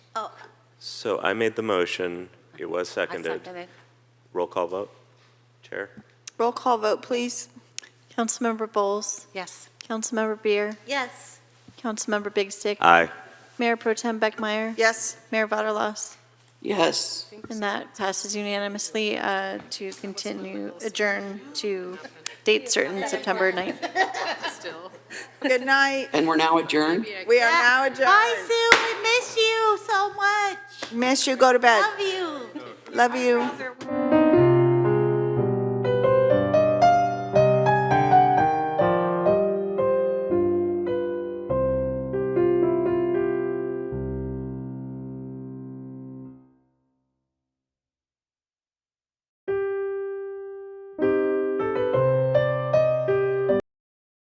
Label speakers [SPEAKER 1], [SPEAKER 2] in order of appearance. [SPEAKER 1] So I made the motion. It was
[SPEAKER 2] I
[SPEAKER 1] seconded.
[SPEAKER 2] seconded.
[SPEAKER 1] Roll call vote. Chair?
[SPEAKER 3] Roll call vote, please.
[SPEAKER 4] Councilmember Bowles,
[SPEAKER 2] Yes.
[SPEAKER 4] Councilmember Beer,
[SPEAKER 5] Yes.
[SPEAKER 4] Councilmember Big Stick,
[SPEAKER 1] Aye.
[SPEAKER 4] Mayor Pro Tem Beckmeyer,
[SPEAKER 3] Yes.
[SPEAKER 4] Mayor Vaterlos,
[SPEAKER 6] Yes.
[SPEAKER 4] and that passes unanimously uh, to continue, adjourn to date certain, September 9th.
[SPEAKER 3] Good night.
[SPEAKER 6] And we're now adjourned?
[SPEAKER 3] We are now
[SPEAKER 5] Bye,
[SPEAKER 3] adjourned.
[SPEAKER 5] Sue. We miss you so much.
[SPEAKER 3] Miss you, go to bed.
[SPEAKER 5] Love you.
[SPEAKER 3] Love you.